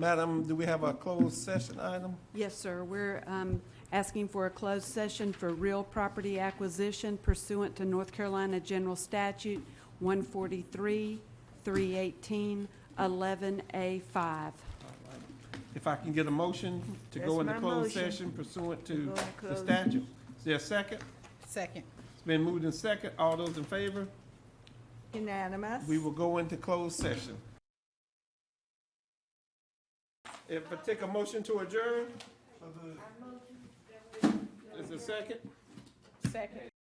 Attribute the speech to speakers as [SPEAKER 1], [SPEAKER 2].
[SPEAKER 1] Madam, do we have a closed session item?
[SPEAKER 2] Yes, sir. We're um, asking for a closed session for real property acquisition pursuant to North Carolina General Statute 143, 318, 11A5.
[SPEAKER 1] If I can get a motion to go
[SPEAKER 3] That's
[SPEAKER 1] into
[SPEAKER 3] my
[SPEAKER 1] closed
[SPEAKER 3] motion.
[SPEAKER 1] session pursuant to
[SPEAKER 3] go into
[SPEAKER 1] the
[SPEAKER 3] closed.
[SPEAKER 1] statute. Is there a second?
[SPEAKER 4] Second.
[SPEAKER 1] It's been moved in second. All those in favor?
[SPEAKER 3] Unanimous?
[SPEAKER 1] We will go into closed session. If I take a motion to adjourn? Is there a second?
[SPEAKER 4] Second.